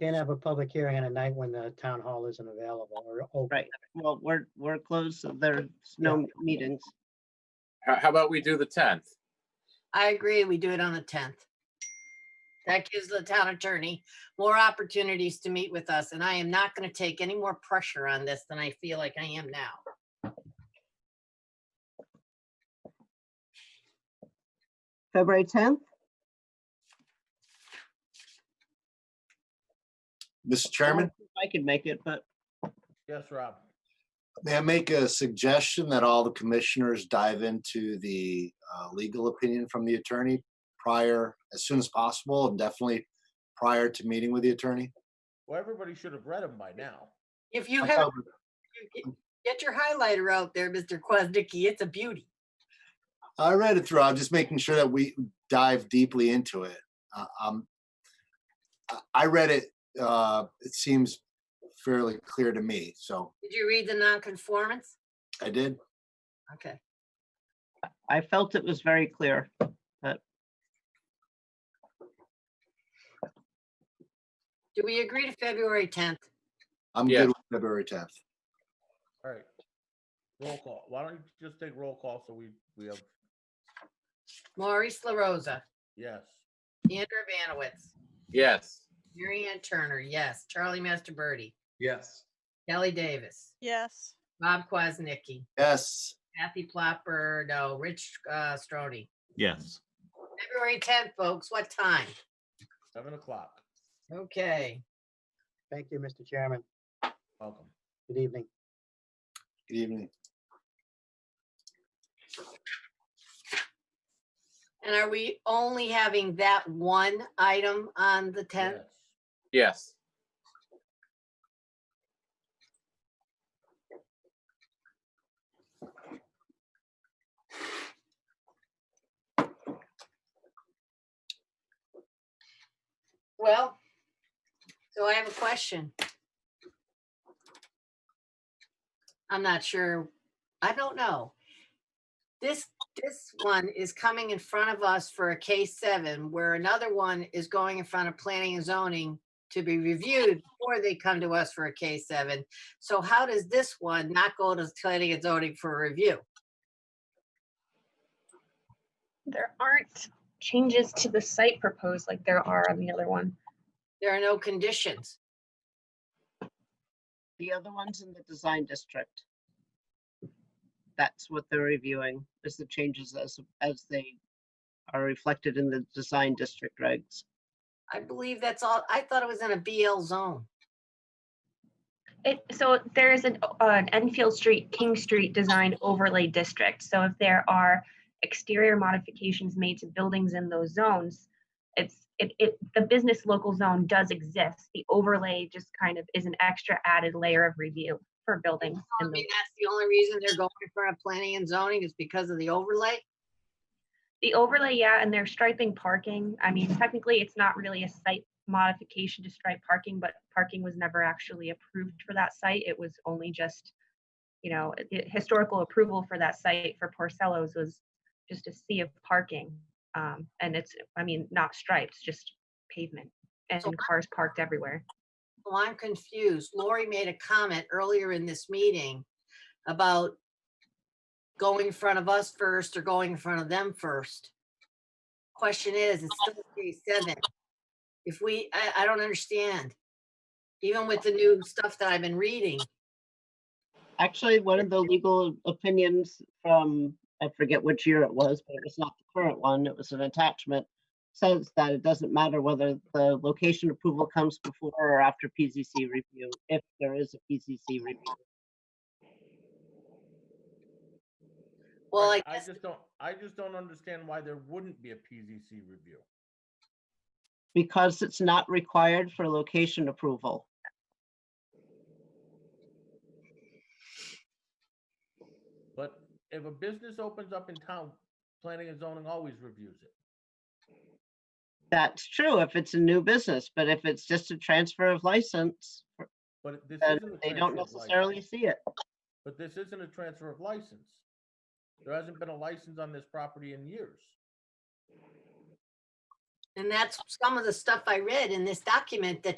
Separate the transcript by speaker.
Speaker 1: Can't have a public hearing on a night when the town hall isn't available or open.
Speaker 2: Right. Well, we're, we're closed, so there's no meetings.
Speaker 3: How, how about we do the tenth?
Speaker 4: I agree, we do it on the tenth. That gives the town attorney more opportunities to meet with us, and I am not gonna take any more pressure on this than I feel like I am now.
Speaker 2: February 10th?
Speaker 5: Mr. Chairman,
Speaker 2: I could make it, but
Speaker 6: Yes, Rob.
Speaker 5: may I make a suggestion that all the commissioners dive into the uh, legal opinion from the attorney prior, as soon as possible, and definitely prior to meeting with the attorney?
Speaker 6: Well, everybody should have read them by now.
Speaker 4: If you
Speaker 5: I'm
Speaker 4: have,
Speaker 5: fine with-
Speaker 4: get your highlighter out there, Mr. Quaznicki, it's a beauty.
Speaker 5: I read it through. I'm just making sure that we dive deeply into it. Uh, um, I- I read it, uh, it seems fairly clear to me, so
Speaker 4: Did you read the nonconformance?
Speaker 5: I did.
Speaker 4: Okay,
Speaker 2: I felt it was very clear.
Speaker 4: do we agree to February tenth?
Speaker 5: I'm
Speaker 3: Yes.
Speaker 5: good with February 10th.
Speaker 6: All right. Roll call. Why don't you just take roll call so we, we have,
Speaker 4: Maurice LaRosa,
Speaker 6: yes.
Speaker 4: Andrew Vanowitz,
Speaker 3: Yes.
Speaker 4: Mary Ann Turner, yes, Charlie Master Birdie,
Speaker 7: yes.
Speaker 4: Kelly Davis,
Speaker 8: yes.
Speaker 4: Bob Quaznicki,
Speaker 5: Yes,
Speaker 4: Kathy Plopper, no, Rich uh, Strode.
Speaker 9: yes.
Speaker 4: February 10th, folks, what time?
Speaker 6: Seven o'clock.
Speaker 4: Okay,
Speaker 1: Thank you, Mr. Chairman.
Speaker 6: Welcome.
Speaker 1: Good evening.
Speaker 5: good evening.
Speaker 4: and are we only having that one item on the 10th?
Speaker 3: Yes.
Speaker 6: Yes.
Speaker 4: Well, so I have a question. I'm not sure, I don't know. This, this one is coming in front of us for a case seven, where another one is going in front of planning and zoning to be reviewed before they come to us for a case seven. So how does this one not go to planning and zoning for review?
Speaker 10: There aren't changes to the site proposed like there are on the other one.
Speaker 4: There are no conditions.
Speaker 2: The other one's in the design district. That's what they're reviewing, is the changes as, as they are reflected in the design district regs.
Speaker 4: I believe that's all, I thought it was in a BL zone.
Speaker 10: It, so there is an, uh, an Enfield Street, King Street Design Overlay District. So if there are exterior modifications made to buildings in those zones, it's, it, it, the business local zone does exist. The overlay just kind of is an extra added layer of review for buildings. in
Speaker 4: I
Speaker 10: those
Speaker 4: mean, that's the only reason they're going in front of planning and zoning is because of the overlay.
Speaker 10: The overlay, yeah, and they're striping parking. I mean, technically, it's not really a site modification to stripe parking, but parking was never actually approved for that site. It was only just, you know, the historical approval for that site for Porcello's was just a sea of parking. Um, and it's, I mean, not stripes, just pavement and
Speaker 4: So-
Speaker 10: cars parked everywhere.
Speaker 4: Well, I'm confused. Lori made a comment earlier in this meeting about going in front of us first or going in front of them first. Question is, it's still case seven. If we, I, I don't understand. Even with the new stuff that I've been reading,
Speaker 2: Actually, one of the legal opinions from, I forget which year it was, but it was not the current one, it was an attachment, says that it doesn't matter whether the location approval comes before or after PCC review, if there is a PCC review.
Speaker 4: well, I
Speaker 6: Right,
Speaker 4: guess,
Speaker 6: just don't, I just don't understand why there wouldn't be a PZC review.
Speaker 2: Because it's not required for location approval.
Speaker 6: But if a business opens up in town, planning and zoning always reviews it.
Speaker 2: That's true if it's a new business, but if it's just a transfer of license,
Speaker 6: But this
Speaker 2: then
Speaker 6: isn't a
Speaker 2: they
Speaker 6: transfer
Speaker 2: don't
Speaker 6: of license.
Speaker 2: necessarily see it.
Speaker 6: But this isn't a transfer of license. There hasn't been a license on this property in years.
Speaker 4: and that's some of the stuff I read in this document that